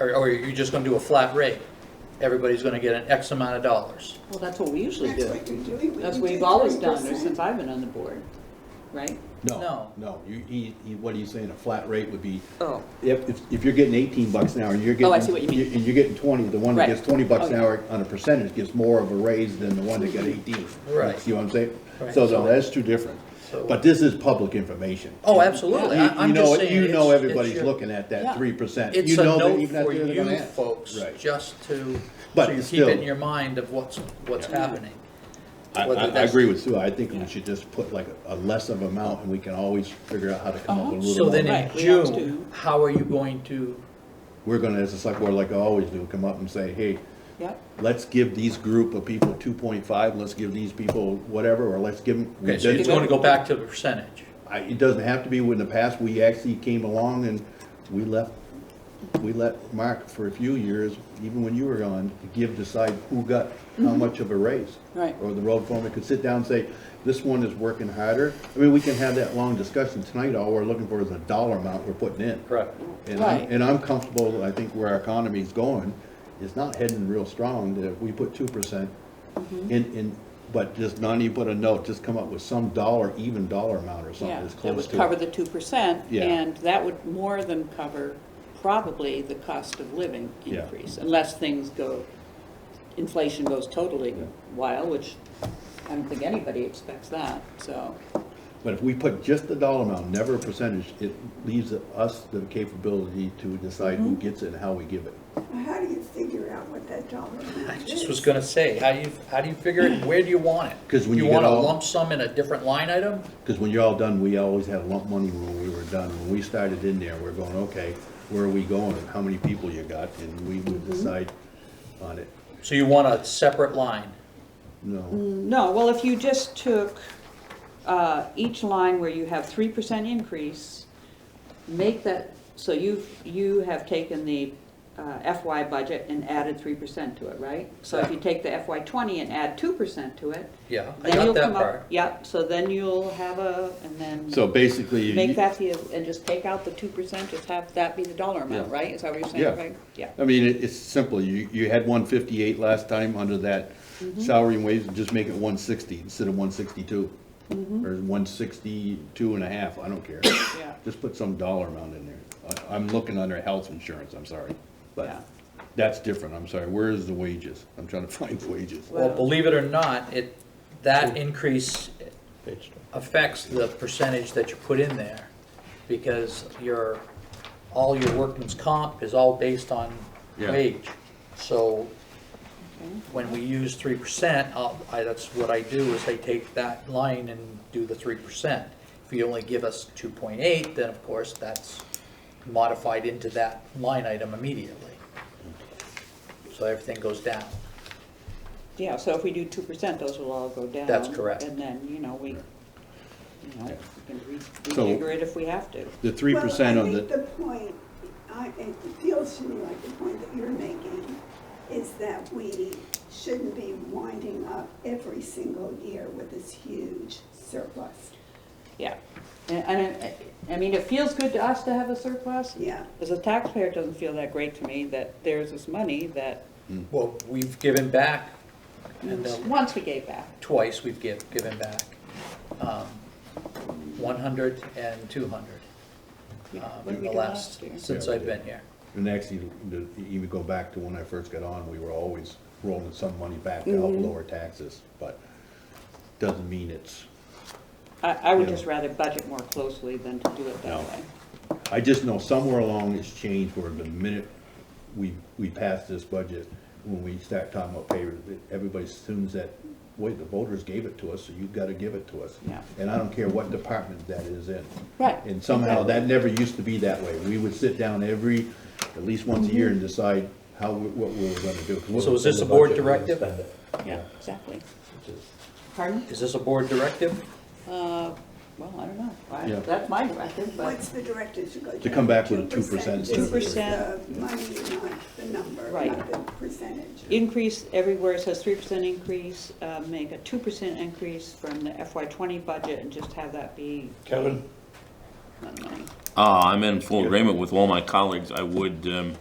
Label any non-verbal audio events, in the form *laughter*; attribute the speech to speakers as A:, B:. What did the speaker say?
A: or, or you're just gonna do a flat rate? Everybody's gonna get an X amount of dollars.
B: Well, that's what we usually
C: That's
B: do.
C: what you do.
B: That's what we've always done, or since I've been on the board, right?
A: No.
D: No, no, you, he, he, what he's saying, a flat rate would be,
B: Oh.
D: if, if, if you're getting eighteen bucks an hour and you're
B: Oh,
D: getting.
B: I see what you mean.
D: And you're getting twenty, the one that
B: Right.
D: gets twenty
A: Oh,
D: bucks an
B: Okay.
D: hour on a percentage gets more of a raise than the one that got eighteen.
A: Right.
D: See what I'm saying?
A: Right.
D: So, no, that's two different,
A: So-
D: but this is public information.
A: Oh, absolutely,
D: You-
A: I- I'm
D: you know
A: just
D: it-
A: saying.
D: You know
A: it's- it's
D: everybody's
A: your-
D: looking at
A: Yeah.
D: that three percent.
A: It's a note for you folks, just to,
D: But
A: so you keep
D: still-
A: it in your mind of what's, what's happening.
D: I,
A: whether
D: I, I
A: that's-
D: agree with Sue, I think we should just put like a, a less of amount and we can always figure out how to come up with a
A: So
D: little
A: then
D: more.
A: in
B: Right, we always
A: June,
B: do.
A: how are you going to,
D: We're gonna, as a select board, like I always do, come up and say, hey,
B: Yep.
D: let's give these group of people two point five, let's give these people whatever, or let's give them.
A: okay, so you
B: did-
A: want to go back to the percentage?
D: I, it doesn't have to be, in the past, we actually came along and we left, we let Mark for a few years, even when you were on, to give, decide who got how much of a raise.
B: Right.
D: Or the road foreman could sit down and say, this one is working harder. I mean, we can have that long discussion tonight, all we're looking for is a dollar amount we're putting in.
A: Correct.
D: And I'm,
B: Right.
D: and I'm comfortable, I think where our economy's going, it's not heading real strong, that if we put two percent
B: Mm-hmm.
D: in, in, but just not even put a note, just come up with some dollar, even dollar amount or something
B: Yeah,
D: that's
B: that
D: close
B: would cover
D: to
B: the
D: it.
B: two percent,
D: Yeah.
B: and that would more than cover probably the cost of living
D: Yeah.
B: increase, unless things go, inflation goes totally wild, which I don't think anybody expects that, so,
D: But if we put just the dollar amount, never a percentage, it leaves us the capability to decide
B: Mm-hmm.
D: who gets it and how we give it.
C: How do you figure out what that dollar
A: I
C: amount
A: just
C: is?
A: was gonna say, how do you, how do you figure it, where do you want it?
D: 'Cause when you get
A: want a
D: all-
A: lump sum in a different line item?
D: Because when you're all done, we always had lump money when we were done. When we started in there, we're going, okay, where are we going? How many people you got? And we
B: Mm-hmm.
D: would decide on it.
A: So you want a separate line?
D: No,
B: no, well, if you just took, uh, each line where you have three percent increase, make that, so you've, you have taken the uh, FY budget and added three percent to it, right? So if you take the FY twenty and add two percent to it,
A: Yeah, I
B: Then
A: got
B: you'll
A: that
B: come
A: part.
B: up, yep, so then you'll have a, and then.
D: so basically. you-
B: Make that the, and just take out the two percent, just have that be the dollar amount,
D: Yeah.
B: right? Is that what you're saying,
D: Yeah.
B: Craig? Yeah.
D: I mean, it- it's simple. You, you had one fifty-eight last time under that salary and wages, just make it one sixty instead of one sixty-two. Or one sixty-two and a half, I don't care.
B: Yeah.
D: Just put some dollar amount in there. I, I'm looking under health insurance, I'm sorry.
B: Yeah.
D: But that's different, I'm sorry. Where is the wages? I'm trying to *laughs* find wages.
A: Well,
B: Wow.
A: believe it or not, it, that increase affects the percentage that you put in there, because your, all your workman's comp is all based on
D: Yeah.
A: wage. So when we use three percent, I, that's what I do, is I take that line and do the three percent. If you only give us two point eight, then of course, that's modified into that line item immediately. So everything goes down.
B: Yeah, so if we do two percent, those will all go down.
A: That's correct.
B: And then, you know, we, you know,
D: Yeah.
B: we can re-
D: So-
B: rejigger it if we have to.
D: The three percent
C: Well,
D: on
C: I
D: the.
C: think the point, I, it feels to me like the point that you're making is that we shouldn't be winding up every single year with this huge surplus.
B: Yeah. And, and, I- I mean, it feels good to us to have a surplus.
C: Yeah.
B: As a taxpayer, it doesn't feel that great to me that there's this money that,
A: Well, we've given back, and uh,
B: once we gave back.
A: twice we've give, given back, um, 100 and 200,
B: We-
A: um,
B: what did
A: in
B: we
A: the
B: do
A: last,
B: year?
A: since
D: Yeah, we
A: I've
D: did.
A: been here.
D: And actually, the- even go back to when I first got on, we were always rolling some money back to help lower taxes, but doesn't mean it's,
B: I, I would
D: Yeah.
B: just rather budget more closely than to do it that
D: No.
B: way.
D: I just know somewhere along it's changed where the minute we, we pass this budget, when we start talking about pay, everybody assumes that, wait, the voters gave it to us, so you've gotta give it to us.
B: Yeah.
D: And I don't care what department that is in.
B: Right.
D: And somehow, that never used to be that way. We would sit down every, at least once a year
B: Mm-hmm.
D: and decide how, we- what we were gonna do. 'Cause what-
A: So is this a board directive?
B: Yeah, exactly. Pardon?
A: Is this a board directive?
B: Uh, well, I don't know. I-
D: Yeah.
B: That's my directive,
C: What's
B: but,
C: the directive to go down?
D: To come back with a 2%
C: This is
B: 2%.
C: the money, not the number,
B: Right.
C: not the percentage.
B: increase everywhere, it says three percent increase, uh, make a two percent increase from the FY twenty budget and just have that be. Kevin?
E: Ah, Uh, I'm in full agreement with all my colleagues. I would, um,